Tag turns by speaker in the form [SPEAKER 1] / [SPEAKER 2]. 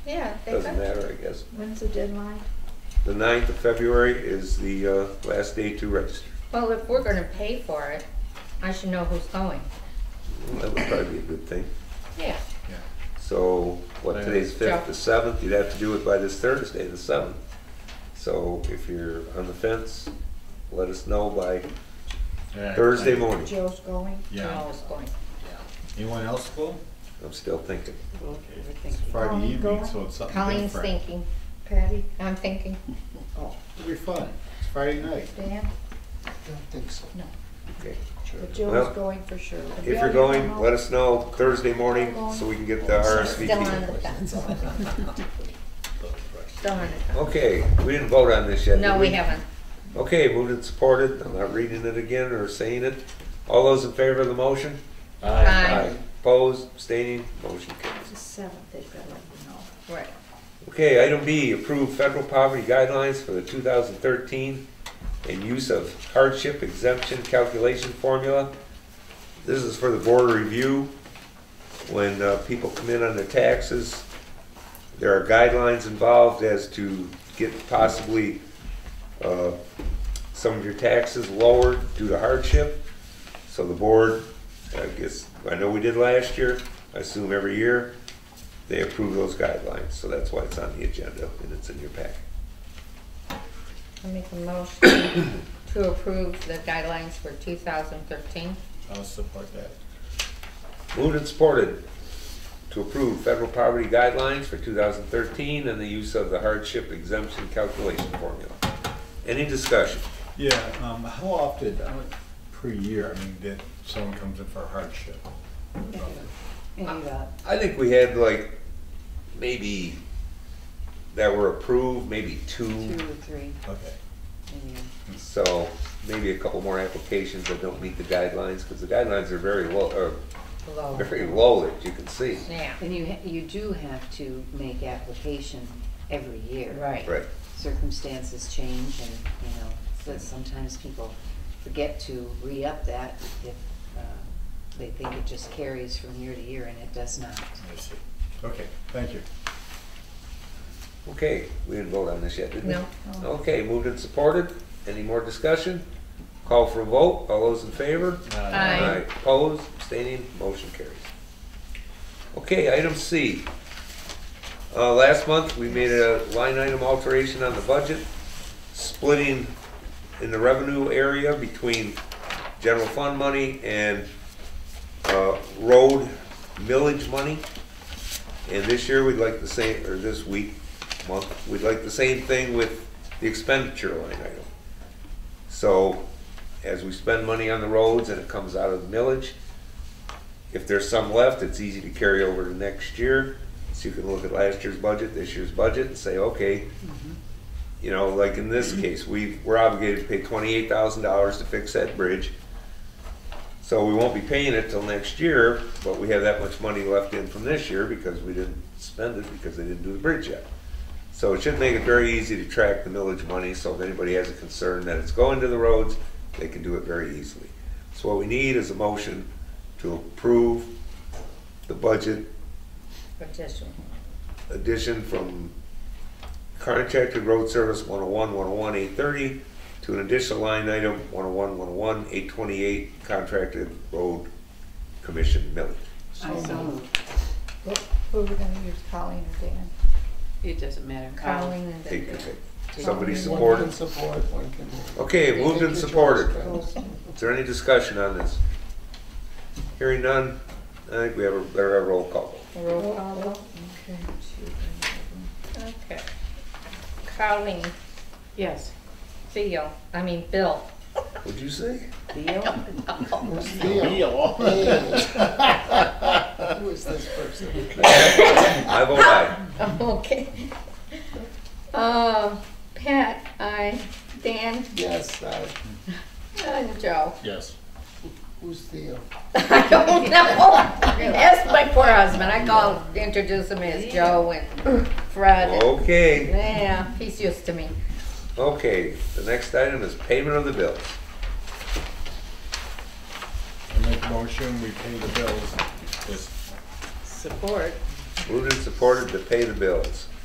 [SPEAKER 1] Yeah, they
[SPEAKER 2] Doesn't
[SPEAKER 1] could.
[SPEAKER 2] matter, I guess.
[SPEAKER 1] When's the deadline?
[SPEAKER 2] The 9th of February is the uh, last day to register.
[SPEAKER 1] Well, if we're gonna pay for it, I should know who's going.
[SPEAKER 2] Well, That would probably be a good thing.
[SPEAKER 1] Yeah.
[SPEAKER 2] So, what, today's 5th, the 7th, you'd have to do it by this Thursday, the 7th. So if you're on the fence, let us know by
[SPEAKER 3] Yeah.
[SPEAKER 2] Thursday morning.
[SPEAKER 1] Joe's going?
[SPEAKER 3] Yeah.
[SPEAKER 1] Joe's going.
[SPEAKER 3] Anyone else go?
[SPEAKER 2] I'm still thinking.
[SPEAKER 3] It's Friday
[SPEAKER 1] Colleen
[SPEAKER 3] evening,
[SPEAKER 1] going?
[SPEAKER 3] so it's something
[SPEAKER 1] Colleen's
[SPEAKER 3] different.
[SPEAKER 1] thinking. Patty? I'm thinking.
[SPEAKER 3] Oh, it'll be fun. It's Friday night.
[SPEAKER 1] Dan?
[SPEAKER 4] don't think so.
[SPEAKER 2] Okay.
[SPEAKER 1] But
[SPEAKER 2] Well,
[SPEAKER 1] Joe's going for sure.
[SPEAKER 2] If you're going, let us know Thursday morning so we can get the
[SPEAKER 1] Still on the
[SPEAKER 2] RSVP.
[SPEAKER 1] fence. Still on the fence.
[SPEAKER 2] Okay, we didn't vote on this yet, did
[SPEAKER 1] No, we haven't.
[SPEAKER 2] Okay, moved and supported. I'm not reading it again or saying it. All those in favor of the motion?
[SPEAKER 1] Aye.
[SPEAKER 2] Opposed, abstaining, motion carries.
[SPEAKER 1] The seventh, they've gotta let you know. Right.
[SPEAKER 2] Okay, item B, approve federal poverty guidelines for the 2013 and use of hardship exemption calculation formula. This is for the board review. When uh, people come in on their taxes, there are guidelines involved as to get possibly uh, some of your taxes lowered due to hardship. So the board, I guess, I know we did last year, I assume every year, they approve those guidelines, so that's why it's on the agenda and it's in your packet.
[SPEAKER 1] I make a motion to approve the guidelines for two thousand thirteen.
[SPEAKER 3] I'll support that.
[SPEAKER 2] Moved and supported to approve federal poverty guidelines for 2013 and the use of the hardship exemption calculation formula. Any discussion?
[SPEAKER 3] Yeah, um, how often, I don't- per year, I mean, that someone comes in for hardship?
[SPEAKER 5] uh,
[SPEAKER 2] I think we had like, maybe, that were approved, maybe two,
[SPEAKER 5] Two or three,
[SPEAKER 3] Okay.
[SPEAKER 5] maybe.
[SPEAKER 2] so maybe a couple more applications that don't meet the guidelines, because the guidelines are very low,
[SPEAKER 1] Low.
[SPEAKER 2] are very low, as you can see.
[SPEAKER 1] Yeah.
[SPEAKER 5] And you, ha- you do have to make application every year.
[SPEAKER 1] Right.
[SPEAKER 2] Right.
[SPEAKER 5] Circumstances change and, you know, so sometimes people forget to re-up that if uh, they think it just carries from year to year and it does not.
[SPEAKER 3] I see. Okay, thank you.
[SPEAKER 2] Okay, we didn't vote on this yet, did we?
[SPEAKER 1] No.
[SPEAKER 2] Okay, moved and supported. Any more discussion? Call for a vote. All those in favor?
[SPEAKER 1] Aye.
[SPEAKER 3] Uh,
[SPEAKER 2] Opposed, abstaining, motion carries. Okay, item C. Uh, last month, we made a line item alteration on the budget, splitting in the revenue area between general fund money and, uh, road millage money. And this year, we'd like the same, or this week, month, we'd like the same thing with the expenditure line item. So, as we spend money on the roads and it comes out of the millage, if there's some left, it's easy to carry over to next year. So you can look at last year's budget, this year's budget, and say, okay, you know, like in this case, we, we're obligated to pay twenty-eight thousand dollars to fix that bridge. So we won't be paying it till next year, but we have that much money left in from this year because we didn't spend it because they didn't do the bridge yet. So it should make it very easy to track the millage money, so if anybody has a concern that it's going to the roads, they can do it very easily. So what we need is a motion to approve the budget
[SPEAKER 1] Petition.
[SPEAKER 2] addition from contracted road service 101, 101, 830 to an additional line item 101, 101, 828 contracted road commission millage.
[SPEAKER 5] I so moved.
[SPEAKER 1] Who who are we gonna use, Colleen or Dan?
[SPEAKER 5] It doesn't matter.
[SPEAKER 1] Colleen and
[SPEAKER 2] Take your
[SPEAKER 1] Dan.
[SPEAKER 2] pick. Somebody
[SPEAKER 4] One can
[SPEAKER 2] supported?
[SPEAKER 4] support, one can.
[SPEAKER 2] Okay, moved and supported.
[SPEAKER 1] Goes-
[SPEAKER 2] Is there any discussion on this? Hearing none, I think we have a better have a roll call.
[SPEAKER 1] Roll call vote? Okay. Okay. Colleen,
[SPEAKER 5] Yes.
[SPEAKER 1] Theo, I mean Bill.
[SPEAKER 2] What'd you say?
[SPEAKER 5] Theo?
[SPEAKER 3] Deal.
[SPEAKER 4] Who is this person?
[SPEAKER 2] I vote aye.
[SPEAKER 1] Okay. Uh, Pat, I, Dan,
[SPEAKER 4] Yes, uh,
[SPEAKER 1] and Joe.
[SPEAKER 3] Yes.
[SPEAKER 4] who's uh, Theo?
[SPEAKER 1] I don't know. Ask my poor husband. I call, introduce him as Joe and Fred.
[SPEAKER 2] Oh. Okay,
[SPEAKER 1] Yeah, he's used to me.
[SPEAKER 2] okay. The next item is payment of the bills.
[SPEAKER 3] I make a motion, we pay the bills. Yes.
[SPEAKER 5] Support.
[SPEAKER 2] Moved and supported to pay the bills.